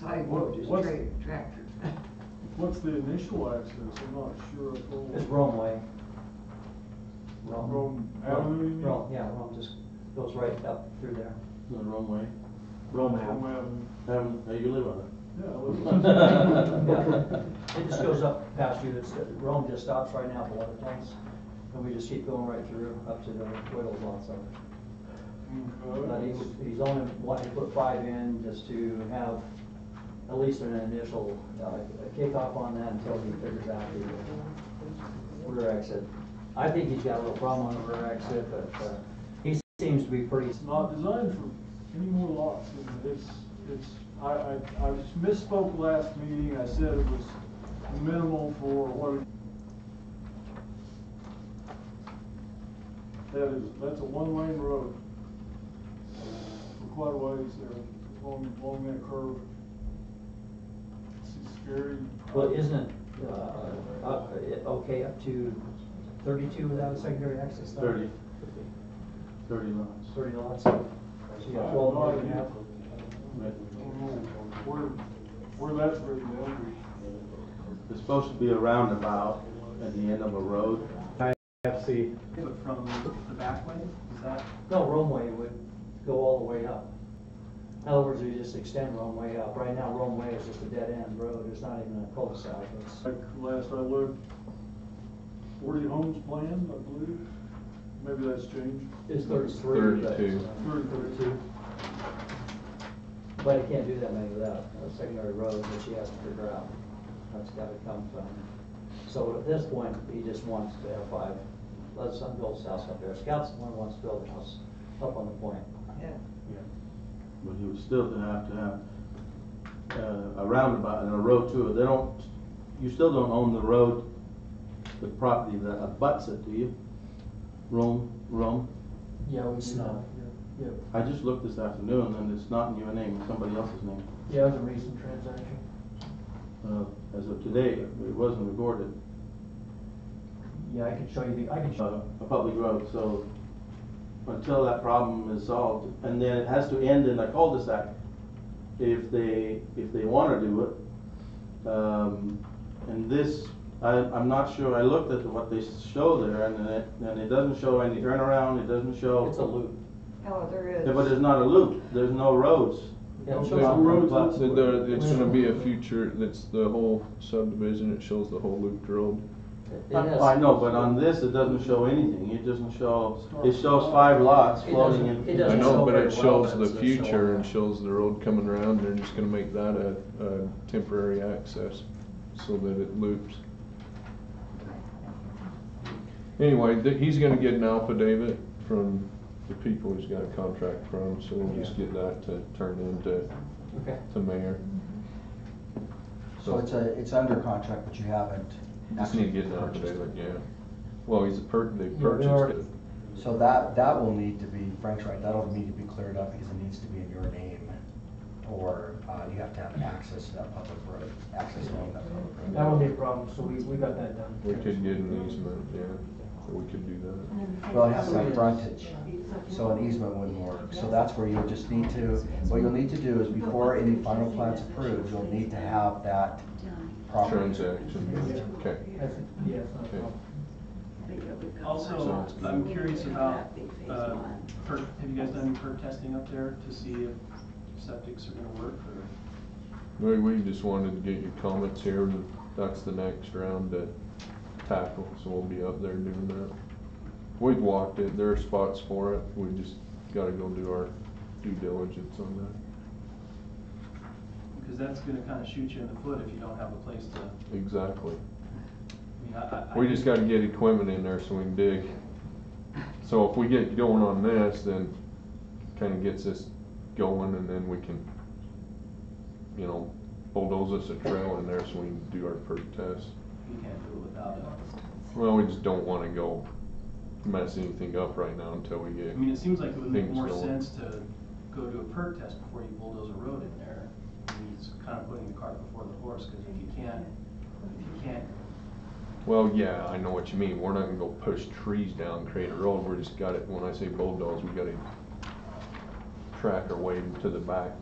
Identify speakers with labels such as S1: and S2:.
S1: sidewalk, just
S2: What's-
S1: tra- tractor.
S2: What's the initial access? I'm not sure. if all-
S3: It's Rome Way. Rome.
S2: Rome Avenue, you mean?
S3: Rome, yeah, Rome just goes right up through there.
S4: The wrong way.
S2: Rome Avenue.
S4: Um, uh, you live on
S2: Yeah.
S3: Yeah.
S2: well,
S3: It just goes up past you, it's, Rome just stops right now at the water plants, and we just keep going right through up to the Whittles lot side. But
S2: Okay.
S3: he's, he's only wanting to put five in just to have at least an initial uh, kickoff on that until he figures out the rear exit. I think he's got a little problem on the rear exit, but, uh, he seems to be pretty.
S2: It's not designed for any more lots, and it's, it's, I, I, I misspoke last meeting, I said it was minimal for what it. That is, that's a one-lane road. For quite a ways there, along, along that curve. It's scary.
S3: Well, isn't it, uh, up, it- okay, up to thirty-two without a secondary access?
S4: it?
S3: though?
S4: Thirty. Thirty lots.
S3: Thirty lots. So you
S2: I
S3: got
S2: have
S3: twelve
S2: no
S3: and a half.
S2: idea. I don't know Where, where that's written down.
S4: There's supposed to be a roundabout at the end of a road.
S5: But from the back way, is that?
S3: No, Romeway would go all the way up. In other words, we just extend Romeway up. Right now, Romeway is just a dead end road. There's not even a cul-de-sac. It's-
S2: Like last I looked, forty homes planned, I believe. Maybe that's changed.
S3: It's thirty-three. but-
S6: 32.
S2: Thirty-three.
S3: But it can't do that many without a secondary road that she has to figure out. That's gotta come from. So at this point, he just wants to have five, let son build his house up there. Scout's the one who wants to build a house up on the point.
S1: Yeah,
S4: But he would still have to have, uh, a roundabout and a road to it. They don't, you still don't own the road, the property that abuts it, do you? Rome, Rome?
S3: Yeah, we do that. Yeah,
S4: I just looked this afternoon and it's not in your name, it's somebody else's name.
S3: yeah, it was a recent transaction.
S4: Uh, as of today, it wasn't recorded,
S3: Yeah, I could show you the, I could show.
S4: uh, a public road, so until that problem is solved, and then it has to end in a cul-de-sac. If they, if they wanna do it, um, and this, I, I'm not sure, I looked at what they show there, and it, and it doesn't show any turnaround, it doesn't show.
S3: It's a loop.
S1: oh, there is.
S4: Yeah, But there's not a loop, there's no roads.
S3: Yeah, it
S2: There's
S3: shows
S2: no
S3: the
S2: roads
S4: But-
S2: elsewhere.
S6: That there- It's gonna be a future, that's the whole subdivision, it shows the whole looped road.
S3: It has-
S4: I know, but on this, it doesn't show anything, it doesn't show, it shows five lots
S3: It
S4: floating
S3: doesn't-
S4: in.
S3: it
S6: I
S3: doesn't
S6: know,
S3: show
S6: but
S3: very
S6: it
S3: well,
S6: shows
S3: but
S6: the
S3: it's a
S6: future
S3: show.
S6: and shows the road coming around, they're just gonna make that a, a temporary access so that it loops. Anyway, th- he's gonna get an affidavit from the people he's got a contract from, so we'll just get that to turn into,
S3: Okay.
S6: to mayor.
S7: So it's a, it's under contract, but you haven't
S6: Just need to
S7: actually
S6: get an
S7: purchased
S6: affidavit,
S7: it.
S6: yeah. Well, he's a per, they
S3: we are-
S6: purchased it.
S7: So that, that will need to be, Frank's right, that'll need to be cleared up because it needs to be in your name. Or, uh, you have to have access to that public road, access to that public
S3: That
S7: road.
S3: won't be a problem, so we, we got that done.
S6: We could get an easement, yeah, we could do that.
S7: Well, it has to have frontage, so an easement wouldn't work. So that's where you'll just need to, what you'll need to do is before any final plan's approved, you'll need to have that property.
S6: Transaction, okay.
S3: That's, yeah, it's not a
S6: Okay.
S3: problem.
S5: Also, I'm curious about, uh, perk, have you guys done any perk testing up there to see if septics are gonna work or?
S6: We, we just wanted to get your comments here, and that's the next round to tackle, so we'll be up there doing that. We've walked it, there are spots for it, we just gotta go do our due diligence on that.
S5: Because that's gonna kinda shoot you in the foot if you don't have a place to, I
S6: Exactly.
S5: mean, I, I.
S6: We just gotta get equipment in there so we can dig. So if we get going on this, then kinda gets us going, and then we can, you know, bulldoze us a trail in there so we can do our perk test.
S5: You can't do it without it.
S6: Well, we just don't wanna go mess anything up right now until we
S5: I
S6: get,
S5: mean, it seems like it would make
S6: Things
S5: more
S6: go-
S5: sense to go do a perk test before you bulldoze a road in there. I mean, It's kinda putting the cart before the horse, cause if you can't, if you can't
S6: well, yeah, I know what you mean, we're not gonna go push trees down, create a road, we're just gotta, when I say bulldoze, we gotta track our way to the back